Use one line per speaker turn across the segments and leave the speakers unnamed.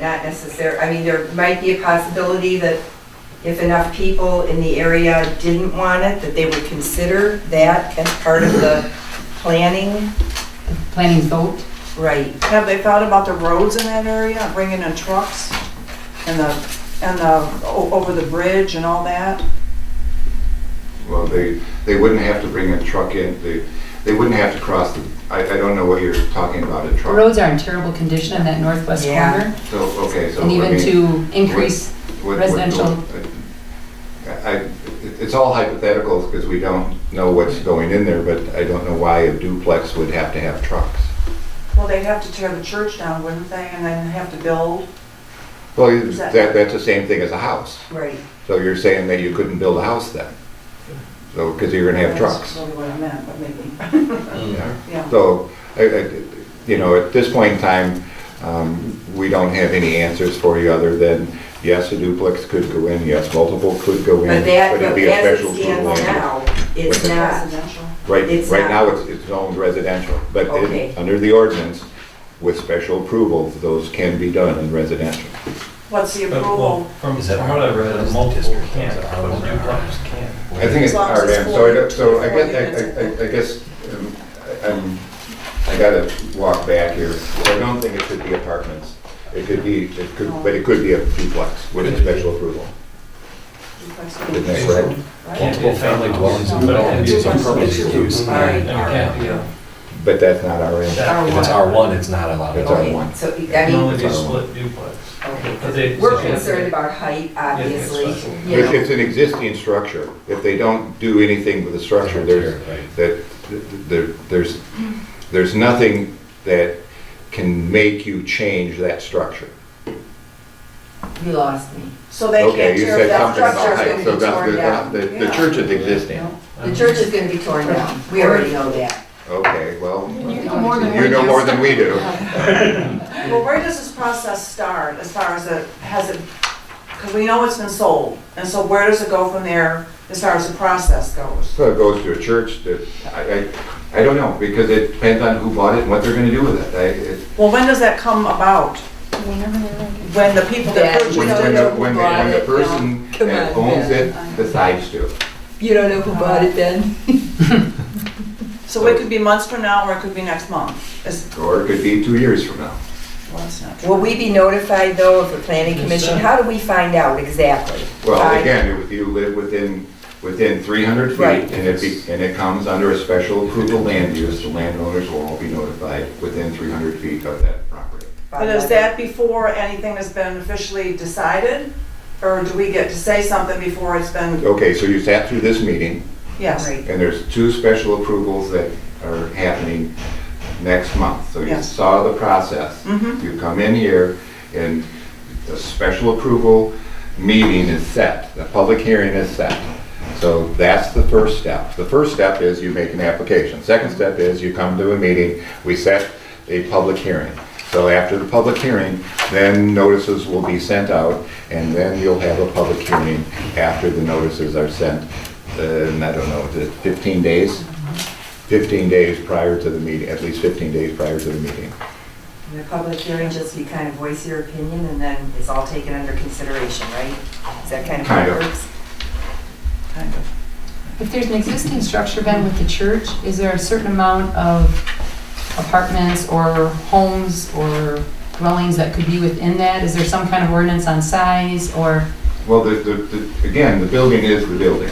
not necessar, I mean, there might be a possibility that if enough people in the area didn't want it, that they would consider that as part of the planning.
planning vote.
Right,
Have they thought about the roads in that area, bringing in trucks and the, and the, o- over the bridge and all that?
Well, they, they wouldn't have to bring a truck in, they, they wouldn't have to cross the, I, I don't know what you're talking about, a
The
truck.
roads are in terrible condition in that northwest
Yeah.
corner,
So, okay, so.
and
I
even
mean,
to increase,
what- what-
residential.
I, I- it's all hypothetical because we don't know what's going in there, but I don't know why a duplex would have to have trucks.
Well, they'd have to tear the church down, wouldn't they, and then have to build?
Well,
that-
that, that's the same thing as a house.
right.
So you're saying that you couldn't build a house then? So, because you're gonna have
That's
trucks.
really what I meant, but maybe,
Yeah.
yeah.
So, I, I, you know, at this point in time, um, we don't have any answers for you other than, yes, a duplex could go in, yes, multiple could go in.
But that,
it'd
but
be a
as
special
it
approval
stands
anyway.
now, it's
But the-
not.
Residential.
Right,
it's
right
not-
now, it's, it's zoned residential, but it-
Okay.
under the ordinance, with special approval, those can be done in residential.
What's
Uh,
the
But, well,
approval?
From
Is that
from what I read,
part
a
of
multiple
district?
can,
Is that
but a
part of it?
duplex can.
I think it's
As long as it's
RDAM, so I,
four-
don't- so I
four
guess,
units.
I- I, I, I guess, um, I- I'm, I gotta walk back here. I don't think it could be apartments. It could be, it could, but it could be a duplex with a special approval. Isn't that correct?
Right?
Can't be a
Multiple-family
family dwelling,
dwellings
but
in the
it
building
can be
is a
some
permitted use.
All right.
And it can't be a,
But that's not RM.
that
If it's R1, it's not allowed.
It's
Okay,
R1.
So,
can
I
only
mean,
be split duplex.
okay,
But they-
'cause we're
they-
concerned about height, obviously,
special.
you
It's,
know.
it's an existing structure. If they don't do anything with the structure, there's,
Right.
that, th- th- there, there's, there's nothing that can make you change that structure.
You lost me.
So they
Okay,
can't
you
tear
said
that
something
structure.
about height,
it's
so
gonna be
that's
torn
the,
down.
the, the
Yeah.
church is existing.
No.
Um,
The church is gonna be torn down, we already know that.
Okay, well, uh,
You
you
know more than we
know
do.
more than we do.
Well, where does this process start as far as it, has it, because we know it's been sold, and so where does it go from there as far as the process goes?
So it goes to a church that, I, I, I don't know, because it depends on who bought it and what they're gonna do with it. I, it,
Well, when does that come about? When the people that
That-
purchased
when,
You don't
when
know
the,
who
when the,
bought
when the
it,
person
no. Come
that
on,
owns
man.
it decides to.
You don't know who
bought it
then?
So it could be months from now, or it could be next month. Is,
Or it could be two years from now.
well, that's not
Will we be notified though of the planning
Yes,
commission?
sir.
How do we find out exactly?
Well,
By-
again, if you live within, within three hundred
Right.
feet, and it be, and it comes under a special approval land use, the landowners will all be notified within three hundred feet of that property.
by
But
letter.
is that before anything has been officially decided? Or do we get to say something before it's been,
Okay, so you sat through this meeting,
yes?
Right.
and there's two special approvals that are happening next month. So you
Yes.
saw the process.
Mhm.
You come in here, and the special approval meeting is set, the public hearing is set. So that's the first step. The first step is you make an application. Second step is you come to a meeting, we set a public hearing. So after the public hearing, then notices will be sent out, and then you'll have a public hearing after the notices are sent, Uh, and I don't know, is it 15 days? 15 days prior to the meeting, at least 15 days prior to the meeting.
In the public hearing, just you kind of voice your opinion and then it's all taken under consideration, right? Is that kind of how
Kind
it
of.
works?
Kind of.
If there's an existing structure, Ben, with the church, is there a certain amount of apartments or homes or dwellings that could be within that? Is there some kind of ordinance on size or?
Well, the, the, the- again, the building is the building.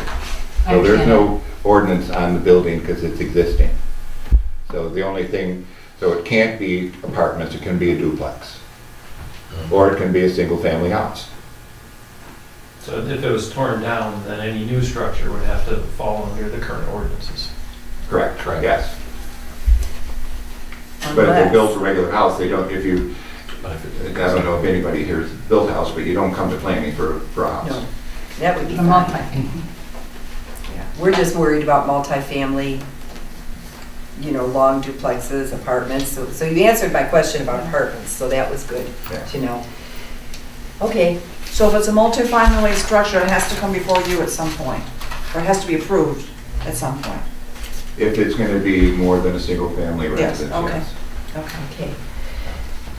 I
So there's
understand.
no ordinance on the building because it's existing. So the only thing, so it can't be apartments, it can be a duplex. Or it can be a single-family house.
So if it was torn down, then any new structure would have to fall under the current ordinances.
Correct.
Correct.
Yes. But if they built a regular house, they don't, if you,
But if
I
it-
don't know if anybody here has built a house, but you don't come to planning for, for a
No,
house.
that would be
A
fine.
multi-
Yeah. We're just worried about multifamily, you know, long duplexes, apartments. So, so you answered my question about apartments, so that was good
Yeah.
to know. Okay,
So if it's a multifamily structure, it has to come before you at some point, or it has to be approved at some point.
If it's gonna be more than a single-family
Yes,
residence,
okay.
yes.
Okay.
okay.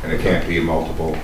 And it can't be multiple,